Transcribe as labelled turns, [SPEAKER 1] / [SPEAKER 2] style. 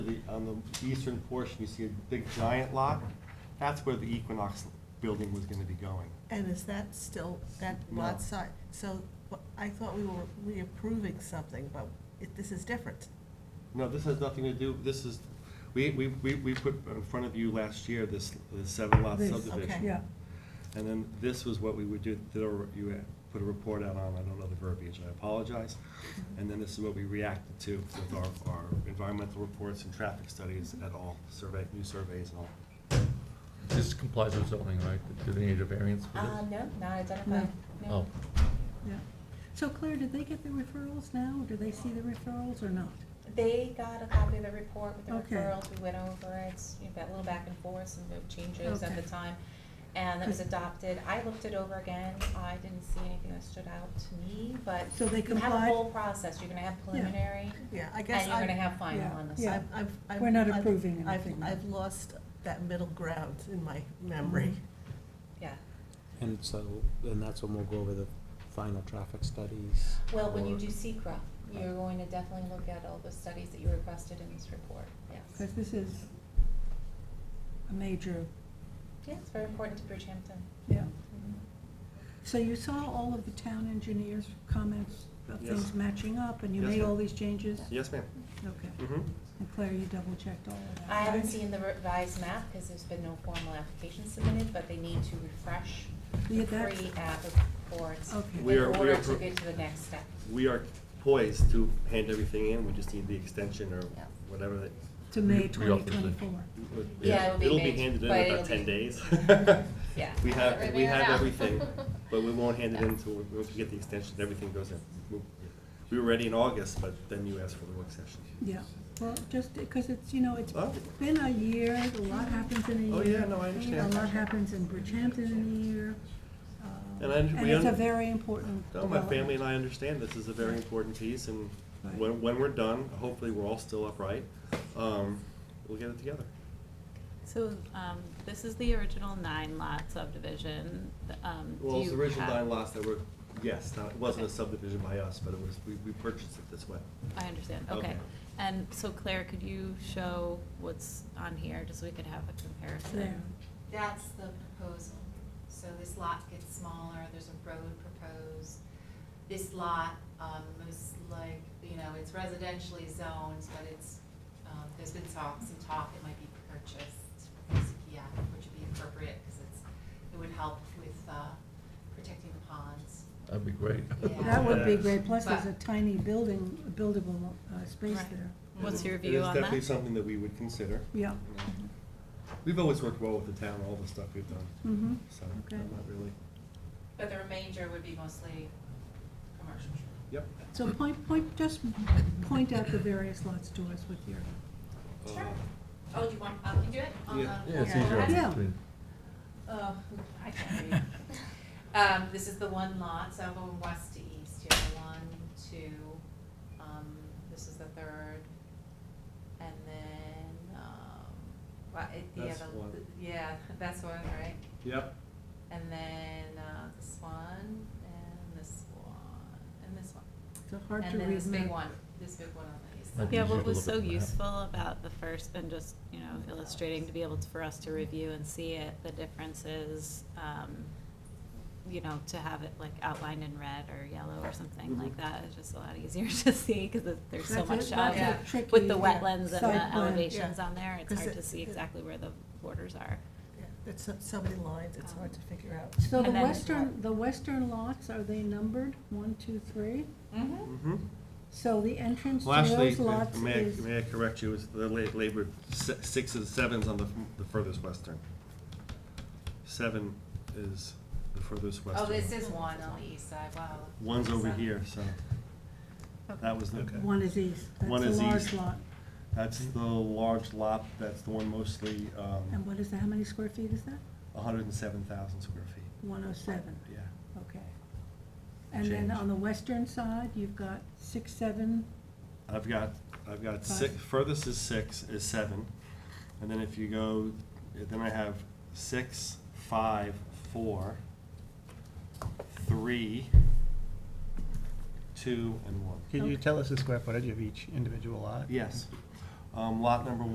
[SPEAKER 1] on the eastern portion, you see a big giant lot. That's where the Equinox building was gonna be going.
[SPEAKER 2] And is that still, that
[SPEAKER 1] No.
[SPEAKER 2] lot size? So wh- I thought we were reapproving something, but it- this is different.
[SPEAKER 1] No, this has nothing to do, this is, we, we, we we put in front of you last year, this this seven lot
[SPEAKER 3] This,
[SPEAKER 1] subdivision.
[SPEAKER 2] okay.
[SPEAKER 3] Yeah,
[SPEAKER 1] And then this was what we would do, did a- you had put a report out on, I don't know the verbiage, I apologize. And then this is what we reacted to with our, our environmental reports and traffic studies at all, survey, new surveys and all.
[SPEAKER 4] This complies with zoning, right? Do they need a variance for
[SPEAKER 5] Uh,
[SPEAKER 4] this?
[SPEAKER 6] Um,
[SPEAKER 5] no, not identified.
[SPEAKER 4] Oh,
[SPEAKER 5] No.
[SPEAKER 3] yeah. So Claire, did they get the referrals now? Do they see the referrals or not?
[SPEAKER 5] They got a copy of the report with the
[SPEAKER 3] Okay.
[SPEAKER 5] referrals, we went over it, s- you know, got a little back and forth, some note changes at
[SPEAKER 3] Okay.
[SPEAKER 5] the time. And it was
[SPEAKER 3] Good.
[SPEAKER 5] adopted, I looked it over again, I didn't see anything that stood out to me, but
[SPEAKER 3] So they
[SPEAKER 5] you have a
[SPEAKER 3] complied?
[SPEAKER 5] whole process, you're gonna have preliminary,
[SPEAKER 2] Yeah, I guess
[SPEAKER 5] and you're gonna
[SPEAKER 2] I,
[SPEAKER 5] have final
[SPEAKER 3] Yeah,
[SPEAKER 5] on the
[SPEAKER 3] yeah.
[SPEAKER 5] side.
[SPEAKER 2] I've, I've- I've.
[SPEAKER 3] We're not
[SPEAKER 2] I've-
[SPEAKER 3] approving
[SPEAKER 2] I've-
[SPEAKER 3] anything.
[SPEAKER 2] I've lost that middle ground in my memory.
[SPEAKER 5] Yeah,
[SPEAKER 7] And so, and that's when we'll go over the final traffic studies.
[SPEAKER 5] well, when you
[SPEAKER 7] or-
[SPEAKER 5] do secra, you're going to definitely look at all the studies that you requested in this report, yes.
[SPEAKER 3] Because this is a major,
[SPEAKER 5] Yeah, it's very important to Bridgehampton.
[SPEAKER 3] yeah.
[SPEAKER 5] Mm-hmm.
[SPEAKER 3] So you saw all of the town engineers' comments of
[SPEAKER 1] Yes.
[SPEAKER 3] things matching up, and you
[SPEAKER 1] Yes,
[SPEAKER 3] made
[SPEAKER 1] ma'am.
[SPEAKER 3] all these changes?
[SPEAKER 1] Yes, ma'am?
[SPEAKER 3] Okay.
[SPEAKER 1] Mm-hmm.
[SPEAKER 3] And Claire, you double-checked all of that?
[SPEAKER 5] I haven't
[SPEAKER 3] right?
[SPEAKER 5] seen the revised map because there's been no formal application submitted, but they need to refresh
[SPEAKER 3] Yeah,
[SPEAKER 5] the
[SPEAKER 3] that's-
[SPEAKER 5] pre-app reports
[SPEAKER 3] Okay.
[SPEAKER 5] in
[SPEAKER 1] We are- we
[SPEAKER 5] order
[SPEAKER 1] are
[SPEAKER 5] to
[SPEAKER 1] pro-
[SPEAKER 5] get to the next step.
[SPEAKER 1] We are poised to hand everything in, we just need the extension or
[SPEAKER 5] Yeah.
[SPEAKER 1] whatever that.
[SPEAKER 3] To May
[SPEAKER 4] We- we also
[SPEAKER 3] twenty
[SPEAKER 4] did.
[SPEAKER 3] twenty-four.
[SPEAKER 5] Yeah, it'll be made,
[SPEAKER 1] handed in
[SPEAKER 5] but
[SPEAKER 1] in
[SPEAKER 5] it'll
[SPEAKER 1] about
[SPEAKER 5] be-
[SPEAKER 1] ten days.
[SPEAKER 5] Yeah.
[SPEAKER 1] We have, we
[SPEAKER 8] Everything
[SPEAKER 1] have
[SPEAKER 8] out.
[SPEAKER 1] everything, but we won't hand it in
[SPEAKER 5] Yeah.
[SPEAKER 1] until, once we get the extension, everything goes in. We- We were ready in August, but then you asked for the work session.
[SPEAKER 3] Yeah, well, just because it's, you know, it's
[SPEAKER 1] Oh.
[SPEAKER 3] been a year, a lot happens in a
[SPEAKER 1] Oh,
[SPEAKER 3] year.
[SPEAKER 1] yeah, no, I understand.
[SPEAKER 3] A lot happens in Bridgehampton in a year. uh,
[SPEAKER 1] And I- we
[SPEAKER 3] it's a
[SPEAKER 1] un-
[SPEAKER 3] very important
[SPEAKER 1] No, my
[SPEAKER 3] development.
[SPEAKER 1] family and I understand this is a very important piece, and
[SPEAKER 3] Right.
[SPEAKER 1] when, when we're done, hopefully we're all still upright, um, we'll get it together.
[SPEAKER 8] So, um, this is the original nine lot subdivision, th- um, do you have?
[SPEAKER 1] Well, it's the original nine lots that were, yes, not- it wasn't a subdivision by us, but it was, we, we purchased it this way.
[SPEAKER 8] I understand,
[SPEAKER 1] Okay.
[SPEAKER 8] okay. And so Claire, could you show what's on here, just so we could have a comparison?
[SPEAKER 3] There.
[SPEAKER 6] That's the proposal. So this lot gets smaller, there's a road proposed. This lot, um, is like, you know, it's residentially zoned, but it's, um, there's been talk, some talk it might be purchased from CPF, which would be appropriate, because it's, it would help with, uh, protecting the ponds.
[SPEAKER 4] that'd be great.
[SPEAKER 6] Yeah.
[SPEAKER 3] That would be
[SPEAKER 1] Yes.
[SPEAKER 3] great, plus there's a
[SPEAKER 6] But-
[SPEAKER 3] tiny building, buildable uh, space
[SPEAKER 8] Right.
[SPEAKER 3] there.
[SPEAKER 8] What's your
[SPEAKER 1] It
[SPEAKER 8] view
[SPEAKER 1] is
[SPEAKER 8] on that?
[SPEAKER 1] definitely something that we would consider.
[SPEAKER 3] Yeah,
[SPEAKER 1] you know. We've always worked well with the town, all the stuff we've done,
[SPEAKER 3] mm-hmm,
[SPEAKER 1] so
[SPEAKER 3] Okay.
[SPEAKER 1] I'm not really,
[SPEAKER 6] But the remainder would be mostly commercial.
[SPEAKER 1] yep.
[SPEAKER 3] so point, point, just point out the various lots to us with your,
[SPEAKER 6] Sure.
[SPEAKER 1] Uh,
[SPEAKER 6] Oh, do you want, I can do it? on the-
[SPEAKER 1] Yeah.
[SPEAKER 4] Yeah, it's
[SPEAKER 2] Yeah.
[SPEAKER 4] easier.
[SPEAKER 3] Yeah.
[SPEAKER 4] between-
[SPEAKER 6] Oh, I can't read. Um, this is the one lot, so I'm going west to east here, one, two, um, this is the third. And then, um, well, it, the
[SPEAKER 1] That's
[SPEAKER 6] other,
[SPEAKER 1] one.
[SPEAKER 6] yeah, that's one, right?
[SPEAKER 1] Yep,
[SPEAKER 6] And then, uh, this one, and this one, and this one.
[SPEAKER 3] it's a hard to read.
[SPEAKER 6] And then this big
[SPEAKER 3] map.
[SPEAKER 6] one, this big one on the east
[SPEAKER 4] Might
[SPEAKER 6] side.
[SPEAKER 4] be
[SPEAKER 8] Yeah,
[SPEAKER 4] easier
[SPEAKER 8] what
[SPEAKER 4] to
[SPEAKER 8] was
[SPEAKER 4] look
[SPEAKER 8] so
[SPEAKER 4] at the map.
[SPEAKER 8] useful about the first, and just, you know, illustrating to be able to, for us to review and see it, the differences, um, you know, to have it like outlined in red or yellow or something like
[SPEAKER 1] Mhm.
[SPEAKER 8] that is just a lot easier to see, because there's so
[SPEAKER 3] That's a-
[SPEAKER 8] much
[SPEAKER 3] that's
[SPEAKER 8] on
[SPEAKER 6] a
[SPEAKER 8] it.
[SPEAKER 3] tricky,
[SPEAKER 8] With the
[SPEAKER 3] yeah,
[SPEAKER 8] wetlands and
[SPEAKER 3] site
[SPEAKER 8] the
[SPEAKER 3] plan,
[SPEAKER 8] elevations
[SPEAKER 2] yeah.
[SPEAKER 8] on there, it's
[SPEAKER 2] 'Cause
[SPEAKER 8] hard
[SPEAKER 2] it-
[SPEAKER 8] to see
[SPEAKER 2] it-
[SPEAKER 8] exactly where the borders are.
[SPEAKER 2] Yeah, It's so- so many lines, it's hard to figure out.
[SPEAKER 3] Mm-hmm. So the
[SPEAKER 8] And then-
[SPEAKER 3] western, the western lots, are they numbered, one, two, three?
[SPEAKER 6] Mm-hmm.
[SPEAKER 1] mm-hmm.
[SPEAKER 3] So the entrance to
[SPEAKER 1] Well, actually,
[SPEAKER 3] those lots
[SPEAKER 1] may I,
[SPEAKER 3] is,
[SPEAKER 1] may I correct you, it's the la- labor, si- six and seven's on the, f- the furthest western. Seven is the furthest western.
[SPEAKER 6] Oh, this is one on the east side, wow.
[SPEAKER 1] One's over
[SPEAKER 6] So-
[SPEAKER 1] here, so that was the,
[SPEAKER 3] one is east,
[SPEAKER 1] One
[SPEAKER 3] that's
[SPEAKER 1] is
[SPEAKER 3] a large
[SPEAKER 1] east.
[SPEAKER 3] lot.
[SPEAKER 1] that's the large lot, that's the one mostly,
[SPEAKER 3] And
[SPEAKER 1] um,
[SPEAKER 3] what is that, how many square feet is that?
[SPEAKER 1] hundred and seven thousand square feet,
[SPEAKER 3] One oh seven,
[SPEAKER 1] yeah.
[SPEAKER 3] okay. And then
[SPEAKER 1] Change.
[SPEAKER 3] on the western side, you've got six, seven,
[SPEAKER 1] I've got, I've got six,
[SPEAKER 3] Five.
[SPEAKER 1] furthest is six, is seven, and then if you go, then I have six, five, four, three, two, and one.
[SPEAKER 9] Can you tell us the square footage of each individual lot?
[SPEAKER 1] Yes. Um, lot number